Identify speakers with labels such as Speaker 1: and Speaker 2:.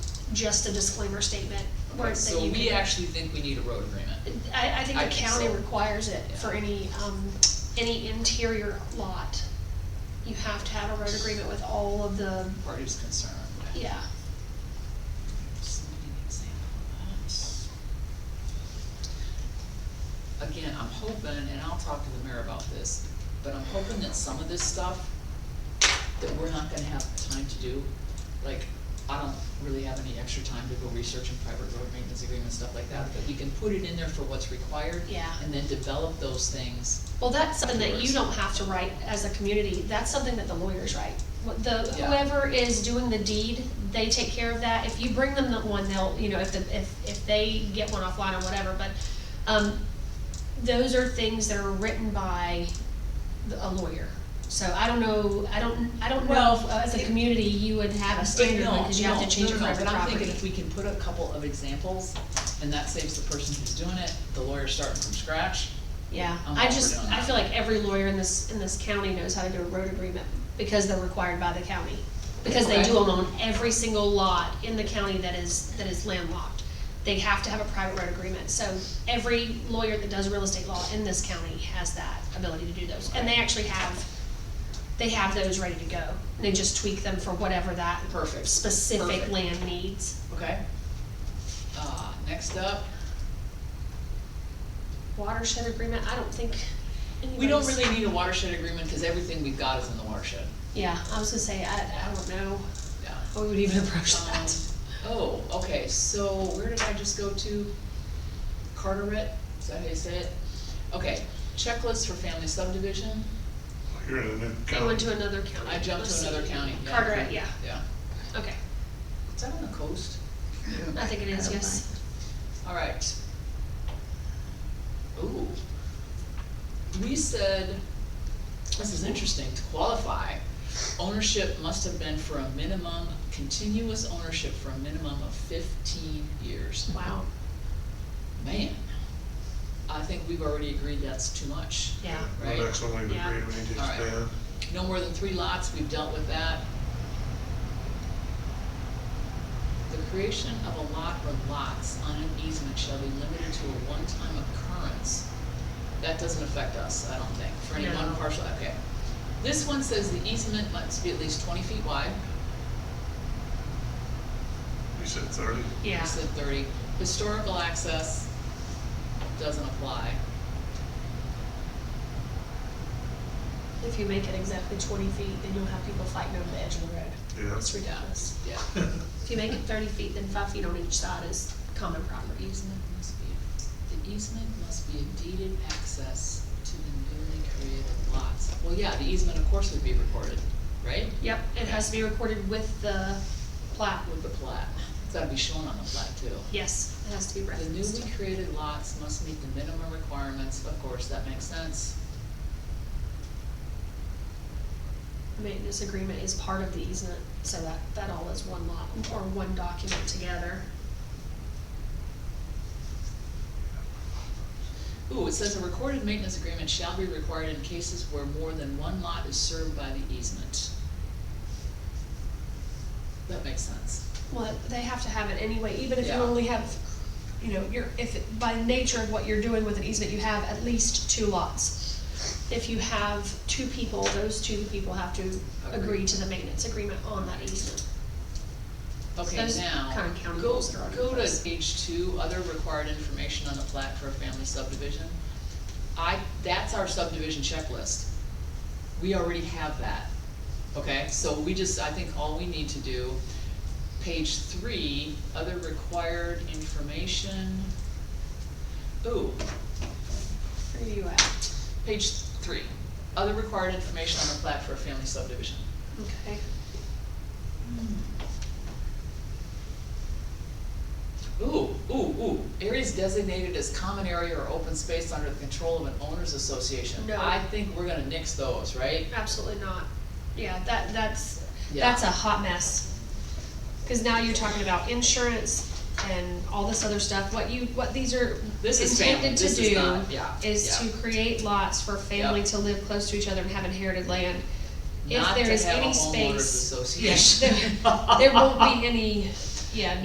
Speaker 1: just a disclaimer statement. where-
Speaker 2: Okay,
Speaker 1: that
Speaker 2: so
Speaker 1: you
Speaker 2: we
Speaker 1: can-
Speaker 2: actually think we need a road agreement.
Speaker 1: I, I think
Speaker 2: I
Speaker 1: the
Speaker 2: think
Speaker 1: county
Speaker 2: so.
Speaker 1: requires it
Speaker 2: Yeah.
Speaker 1: for any, um, any interior lot. You have to have a road agreement with all of the,
Speaker 2: Parties concerned.
Speaker 1: yeah,
Speaker 2: Just need an example of that. Again, I'm hoping, and I'll talk to the mayor about this, but I'm hoping that some of this stuff that we're not gonna have time to do, like, I don't really have any extra time to go research and private road maintenance agreement, stuff like that, but you can put it in there for what's required.
Speaker 1: Yeah.
Speaker 2: And then develop those things.
Speaker 1: well, that's something that you don't have to write as a community, that's something that the lawyers write. What The,
Speaker 2: Yeah.
Speaker 1: whoever is doing the deed, they take care of that, if you bring them the one, they'll, you know, if the, if, if they get one offline or whatever, but, um, those are things that are written by the- a lawyer. So I don't know, I don't, I don't know if,
Speaker 2: Well,
Speaker 1: uh, as a
Speaker 2: it-
Speaker 1: community, you would have a standard
Speaker 2: But
Speaker 1: one,
Speaker 2: no,
Speaker 1: cause you have to
Speaker 2: no,
Speaker 1: change
Speaker 2: no,
Speaker 1: it
Speaker 2: no,
Speaker 1: for
Speaker 2: no,
Speaker 1: every
Speaker 2: But I'm
Speaker 1: property.
Speaker 2: thinking if we can put a couple of examples, and that saves the person who's doing it, the lawyer starting from scratch.
Speaker 1: Yeah,
Speaker 2: I'm
Speaker 1: I
Speaker 2: all for
Speaker 1: just,
Speaker 2: doing
Speaker 1: I
Speaker 2: that.
Speaker 1: feel like every lawyer in this, in this county knows how to do a road agreement, because they're required by the county. Because they do
Speaker 2: Okay.
Speaker 1: them on every single lot in the county that is, that is landlocked. They have to have a private road agreement, so every lawyer that does real estate law in this county has that ability to do those. And they actually have, they have those ready to go, and they just tweak them for whatever that
Speaker 2: Perfect.
Speaker 1: specific
Speaker 2: Perfect.
Speaker 1: land needs.
Speaker 2: Okay. Uh, next up,
Speaker 1: Watershed agreement, I don't think
Speaker 2: we don't
Speaker 1: anybody's-
Speaker 2: really need a watershed agreement, cause everything we've got is in the watershed,
Speaker 1: Yeah, I was gonna say, I, I don't know
Speaker 2: yeah.
Speaker 1: how we would even approach
Speaker 2: Um,
Speaker 1: that.
Speaker 2: oh, okay, so where did I just go to? Carteret, is that how you say it? Okay, checklist for family subdivision,
Speaker 3: You're in a new
Speaker 1: I went
Speaker 3: county.
Speaker 1: to another county.
Speaker 2: I jumped
Speaker 1: Let's
Speaker 2: to another
Speaker 1: see.
Speaker 2: county, yeah.
Speaker 1: Carteret, yeah,
Speaker 2: Yeah,
Speaker 1: okay,
Speaker 2: is that on the coast?
Speaker 1: I think it is, yes.
Speaker 2: All right. Ooh. We said, this is interesting, to qualify, ownership must have been for a minimum, continuous ownership for a minimum of fifteen years.
Speaker 1: Wow,
Speaker 2: Man, I think we've already agreed that's too much.
Speaker 1: yeah,
Speaker 2: Right.
Speaker 3: The next one we've
Speaker 1: Yeah.
Speaker 3: agreed we need to
Speaker 2: All right.
Speaker 3: expand.
Speaker 2: No more than three lots, we've dealt with that. The creation of a lot or lots on an easement shall be limited to a one-time occurrence. That doesn't affect us, I don't think, for any one
Speaker 1: No.
Speaker 2: parcel, okay. This one says the easement must be at least twenty feet wide,
Speaker 3: You said thirty?
Speaker 1: yeah.
Speaker 2: you said thirty. Historical access doesn't apply.
Speaker 1: If you make it exactly twenty feet, then you'll have people fighting over the edge of the road.
Speaker 3: Yeah.
Speaker 1: It's ridiculous.
Speaker 2: Yeah.
Speaker 1: If you make it thirty feet, then five feet on each side is common
Speaker 2: The
Speaker 1: property.
Speaker 2: easement must be, the easement must be a deeded access to the newly created lots. Well, yeah, the easement of course would be recorded, right?
Speaker 1: Yep, it has to be recorded with the plat.
Speaker 2: With the plat, it's gotta be shown on the plat too.
Speaker 1: Yes, it has to be
Speaker 2: The
Speaker 1: referenced.
Speaker 2: newly created lots must meet the minimum requirements, of course, that makes sense.
Speaker 1: Maintenance agreement is part of the easement, so that, that all is one lot, or one document together.
Speaker 2: Ooh, it says a recorded maintenance agreement shall be required in cases where more than one lot is served by the easement. That makes sense.
Speaker 1: Well, they have to have it anyway, even if you
Speaker 2: Yeah.
Speaker 1: only have, you know, you're, if, it- by nature of what you're doing with an easement, you have at least two lots. If you have two people, those two people have to agree
Speaker 2: Agree.
Speaker 1: to the maintenance agreement on that easement.
Speaker 2: Okay,
Speaker 1: Those
Speaker 2: now,
Speaker 1: kinda county
Speaker 2: go,
Speaker 1: rules are on
Speaker 2: go
Speaker 1: those.
Speaker 2: to page two, other required information on the plat for a family subdivision. I, that's our subdivision checklist. We already have that, okay? So we just, I think all we need to do, page three, other required information. Ooh,
Speaker 1: Where are you at?
Speaker 2: page three, other required information on the plat for a family subdivision.
Speaker 1: Okay.
Speaker 2: Ooh, ooh, ooh, areas designated as common area or open space under the control of an owners association.
Speaker 1: No.
Speaker 2: I think we're gonna nix those, right?
Speaker 1: Absolutely not. Yeah, that, that's,
Speaker 2: Yeah.
Speaker 1: that's a hot mess. Cause now you're talking about insurance and all this other stuff, what you, what these are
Speaker 2: This is family,
Speaker 1: intended to
Speaker 2: this is not, yeah,
Speaker 1: do is
Speaker 2: yeah.
Speaker 1: to create lots for family
Speaker 2: Yep.
Speaker 1: to live close to each other and have inherited land. If
Speaker 2: Not
Speaker 1: there
Speaker 2: to
Speaker 1: is
Speaker 2: have a
Speaker 1: any
Speaker 2: homeowners
Speaker 1: space,
Speaker 2: association.
Speaker 1: there won't be any, yeah,